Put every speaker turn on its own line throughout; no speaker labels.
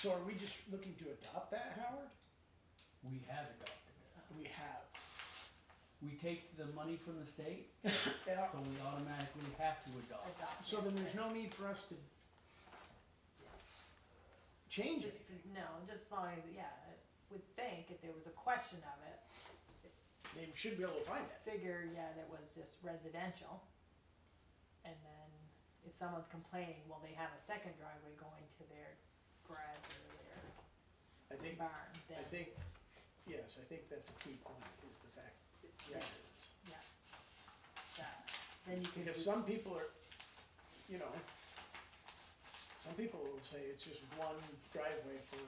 So are we just looking to adopt that, Howard?
We have adopted it.
We have.
We take the money from the state,
Yeah,
so we automatically have to adopt.
adopt
so
it.
then there's no need for us to change it.
Just, no, just as long as, yeah, I would think if there was a question of it,
They should be able to find it.
figure, yeah, that was just residential. And then if someone's complaining, well, they have a second driveway going to their garage or their
I think,
barn,
I
then,
think, yes, I think that's a key point, is the fact, that yeah, it is.
yeah. That- uh, Then you could,
Because
do-
some people are, you know, some people will say it's just one driveway for.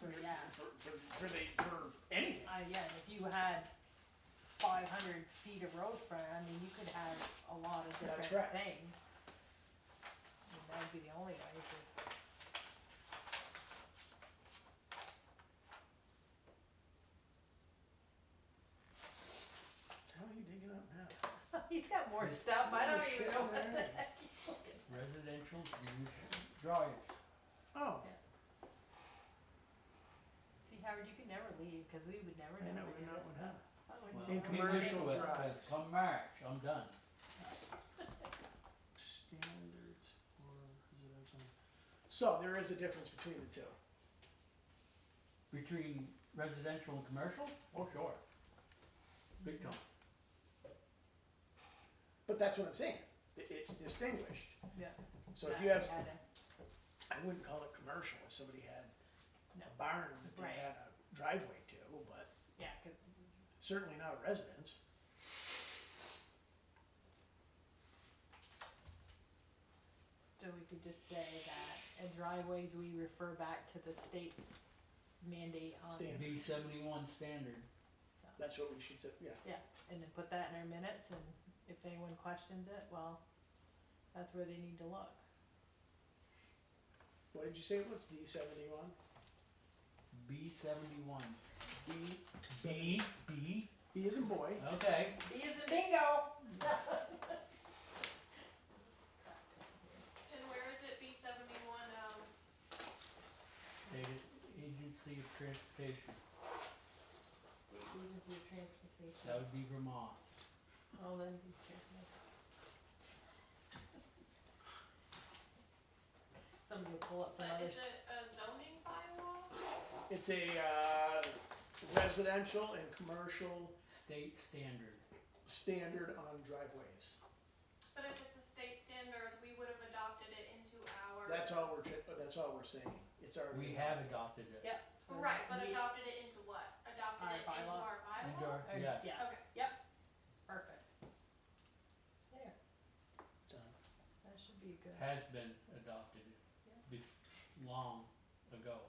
For, yeah.
For, for, for the, for anything.
uh, yeah, and if you had five hundred feet of road front, I mean, you could have a lot of
That's
different
right.
things. And that'd be the only way to.
How are you digging up now?
He's got more stuff. I don't even know what the
Shit.
heck he's looking.
Residential use drive.
Oh,
See, Howard, you can never leave because we would never
I know,
know.
we're not, we're not.
Well,
In
maybe
commercial
with- with
drives.
Come March, I'm done.
Standards for residential. So there is a difference between the two.
Between residential and commercial? Oh, sure. Big time.
But that's what I'm saying. I- It's distinguished.
Yeah.
So if you have, I wouldn't call it commercial if somebody had
No.
a barn that they
Right.
had a driveway to, but
Yeah, 'cause-
certainly not a residence.
so we could just say that in driveways, we refer back to the state's mandate on.
Standard.
B seventy-one standard.
so-
That's what we should say, yeah.
And then put that in our minutes and if anyone questions it, well, that's where they need to look.
What did you say it was? D seventy-one?
B seventy-one.
D,
B, B,
B is in boy.
okay.
B is a bingo.
And where is it, B seventy-one, um,
Stated Agency of Transportation.
Agency of
That
Transportation.
would be Vermont.
Well, then, be careful. Somebody will pull up some
but
others.
is it a zoning bylaw?
It's a, uh, residential and commercial
State standard.
standard on driveways.
But if it's a state standard, we would have adopted it into our.
That's all we're, tri- that's all we're saying. It's our.
We have adopted it.
Yep. so
Oh, Right, but
we-
adopted it into what?
Our
Adopted it into
bylaw.
our
Into
bylaw?
our-
or-
yes.
Yes,
Okay.
yep, perfect. There,
Done.
that should be good.
has been adopted
Yeah.
be- long ago.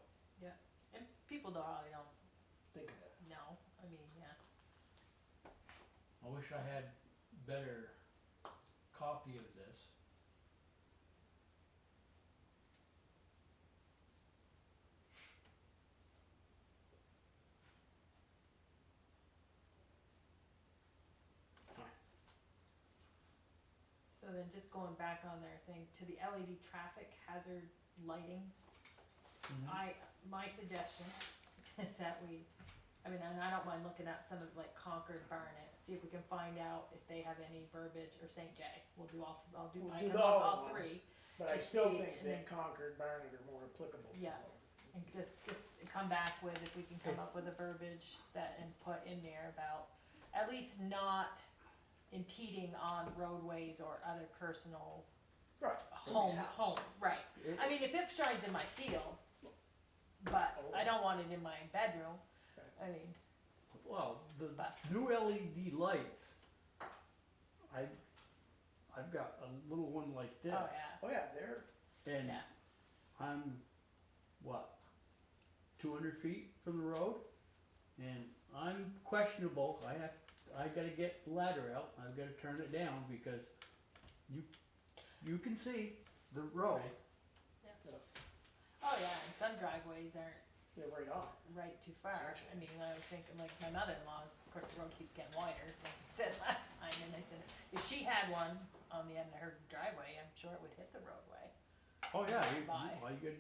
And people don't, probably don't
Think of it.
know, I mean, yeah,
I wish I had better copy of this.
so then just going back on their thing, to the LED traffic hazard lighting, I, my suggestion is that we, I mean, and I don't mind looking up some of like Concord Barnet, see if we can find out if they have any verbiage, or St. Jay, we'll do all, I'll do,
We'll
I
do the
can look
all
all
one.
three.
But I still
Yeah,
think
and
that
then-
Concord, Barnet are more applicable. to
Yeah.
them.
And just, just come back with, if we can come up with a verbiage that, and put in there about, at least not impeding on roadways or other personal
Right.
home,
somebody's house.
home, right.
It-
I mean, if it shines in my field, but
Oh.
I don't want it in my bedroom, I mean,
Well, the
But-
new LED lights, I, I've got a little one like
oh
this.
yeah,
Oh, yeah, they're,
And
Yeah.
I'm, what, two hundred feet from the road? And I'm questionable, I have, I gotta get the ladder out, I've gotta turn it down because you, you can see the road.
Right. oh yeah, and some driveways aren't
they're right on.
right too far. I mean, I was thinking, like, my mother-in-law's, of course, the road keeps getting wider, like I said last time, and I said, if she had one on the end of her driveway, I'm sure it would hit the roadway.
Oh, yeah, you,
Bye.
all you gotta do